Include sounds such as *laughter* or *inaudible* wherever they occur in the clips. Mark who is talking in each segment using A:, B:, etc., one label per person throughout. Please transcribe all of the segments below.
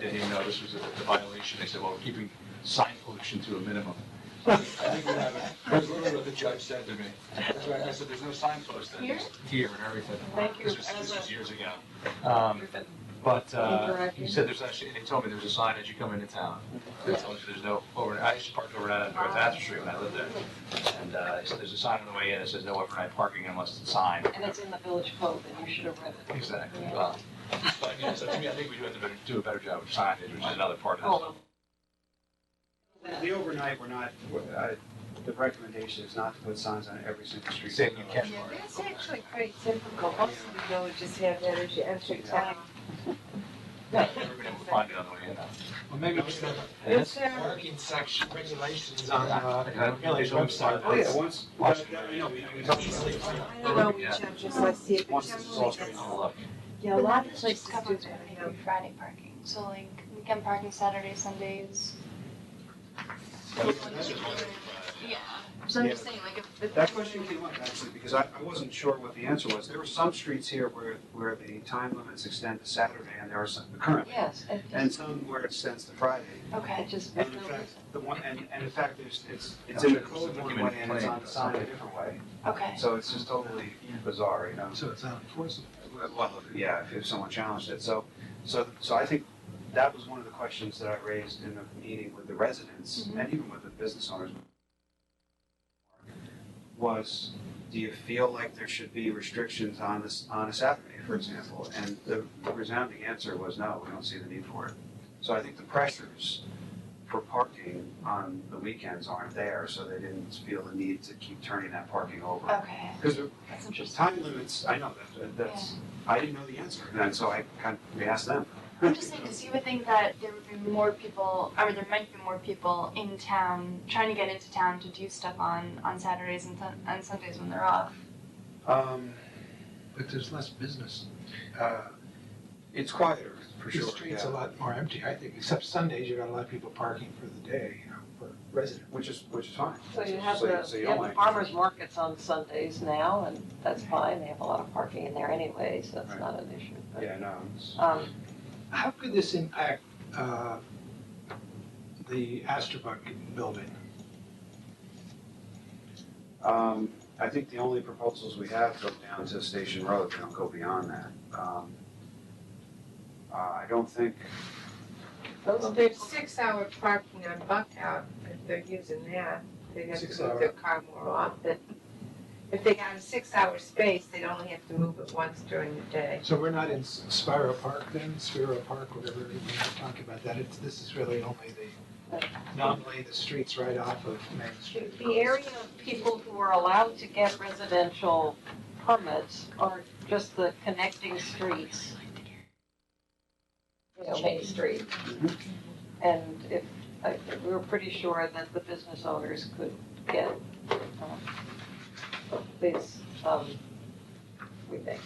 A: to him, no, this was a violation. They said, well, we're keeping sign pollution to a minimum. I think we have it. That's literally what the judge said to me. That's right. I said, there's no signpost. then,
B: Here?
A: just Here and everything.
B: Thank you.
A: This was, this was years ago. Um,
B: Griffin.
A: But uh,
B: Interaction.
A: he said there's actually, they told me there's a sign as you come into town. They told you there's no overnight, I used to park overnight on North Astor Street when I lived there. And uh, he said there's a sign on the way in that says no overnight parking unless it's signed.
B: And it's in the village code, and you should have read it.
A: Exactly. Well, but I mean, so to me, I think we do have to do a better job of signage, which is another part of this.
B: Oh.
C: The overnight, we're not, uh, the recommendation is not to put signs on every single street.
A: Saying you can't.
D: Yeah, that's actually quite typical. Most of the villages have that as you enter town.
A: Everybody will find it on the way in.
E: Well, maybe just the
D: It's there.
E: parking section regulations on, uh,
A: I realize I'm sorry.
E: website.
C: Oh, yeah, once,
A: Watch.
C: but, uh, you know, we- we-
D: I don't know which I'm just, let's see if
C: Once
D: it's
C: this is all straight
A: I'll look.
D: Yeah, a lot of places do
F: covered
D: that, you know.
F: like Friday parking, so like weekend parking Saturday, Sundays. Yeah, so I'm just saying like if. if-
C: That question came up actually, because I, I wasn't sure what the answer was. There were some streets here where, where the time limits extend to Saturday and there are some currently.
B: Yes, it
C: And
B: just,
C: some where it extends to Friday.
B: it
F: Okay,
B: just.
C: And in fact, the one, and, and in fact, there's, it's, it's in the code one way and it's on the sign a different way.
F: okay.
C: So it's just totally bizarre, you know?
E: So it's not enforceable.
C: Well, yeah, if- if someone challenged it. So, so, so I think that was one of the questions that I raised in the meeting with the residents and even with the business owners. Was, do you feel like there should be restrictions on this, on a Saturday, for example? And the resounding answer was no, we don't see the need for it. So I think the pressures for parking on the weekends aren't there, so they didn't feel the need to keep turning that parking over.
F: Okay,
C: Because
F: that's
C: just
F: interesting.
C: time limits, I know that, that- that's, I didn't know the answer, and so I kind of, we asked them.
F: I'm just saying because you would think that there would be more people, or there might be more people in town trying to get into town to do stuff on on Saturdays and Sun and Sundays when they're off.
C: *laughs* Um,
E: But there's less business.
C: uh, it's quieter, for
E: The
C: sure,
E: street's a
C: yeah,
E: lot more empty, I think, except Sundays, you've got a lot of people parking for the day, you know, for residents.
C: which is, which is fine.
B: So you have the,
C: so you
B: you
C: don't
B: have the
C: like-
B: farmers markets on Sundays now, and that's fine, they have a lot of parking in there anyway, so that's
C: Right.
B: not an issue. But,
C: Yeah, no, it's,
B: um,
E: How could this impact, uh, the Astorbuck building?
C: um, I think the only proposals we have go down to Station Road, they don't go beyond that. Um, uh, I don't think,
D: Well, There's six-hour parking on Buckout, if they're using that, they'd have to
E: Six
D: move
E: hour.
D: their car more often. If they got a six-hour space, they'd only have to move it once during the day.
E: So we're not in S- Spiro Park then, Spiro Park, whatever, we're not talking about that, it's, this is really only the, nominally the streets right off of Main
B: The-
E: Street.
B: The area of people who are allowed to get residential permits are just the connecting streets. You know, Main Street. And if, I- we were pretty sure that the business owners could get um, these, um, we think,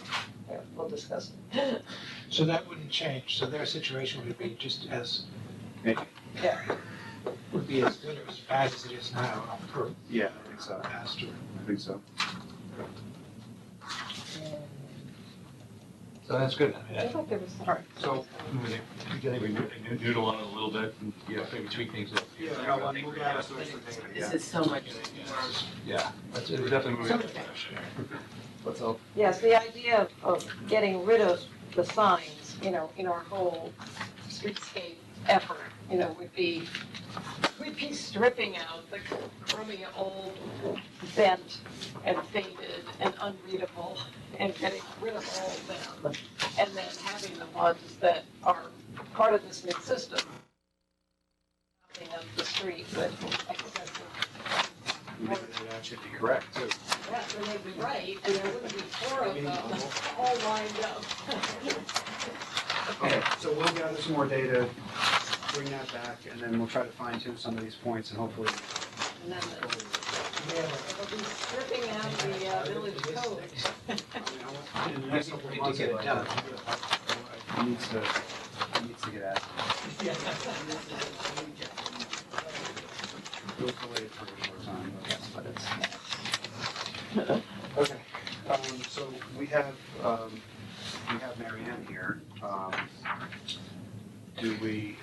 B: Yeah, we'll discuss. it.
E: So that wouldn't change, so their situation would be just as,
C: Maybe.
E: yeah, would be as good or as bad as it is now per
C: yeah, I think so,
E: Astor.
C: I think so.
A: So that's good. I mean,
B: I
A: I-
B: thought there was some-
A: All right, so I think we noo- noodle on it a little bit and, you know, maybe tweak things up.
C: Yeah,
A: I
C: no,
A: think
C: we'll
A: we're-
C: go out to the next meeting,
G: This
C: yeah.
G: is so much.
A: Yeah, that's, we're definitely moving. in that
G: Okay.
A: direction. Let's hope.
B: Yes, the idea of, of getting rid of the signs, you know, in our whole streetscape effort, you know, would be, we'd be stripping out the crummy old bent and faded and unreadable and getting rid of all of them. And then having the ones that are part of this new system. Nothing Up the street, but excessive
C: Maybe that actually be correct, too.
B: that's when they'd be right, and there wouldn't be four of them all lined up.
C: Okay, so we'll gather some more data, bring that back, and then we'll try to fine tune some of these points and hopefully.
B: And then it'll be stripping out the uh, village code.
C: In the next couple of
E: Need to
C: months,
E: get it
C: I'd like
E: done.
C: It needs to, it needs to get out. We'll delay it for a short time, but it's. Okay, um, so we have, um, we have Mary Ann here, um, do we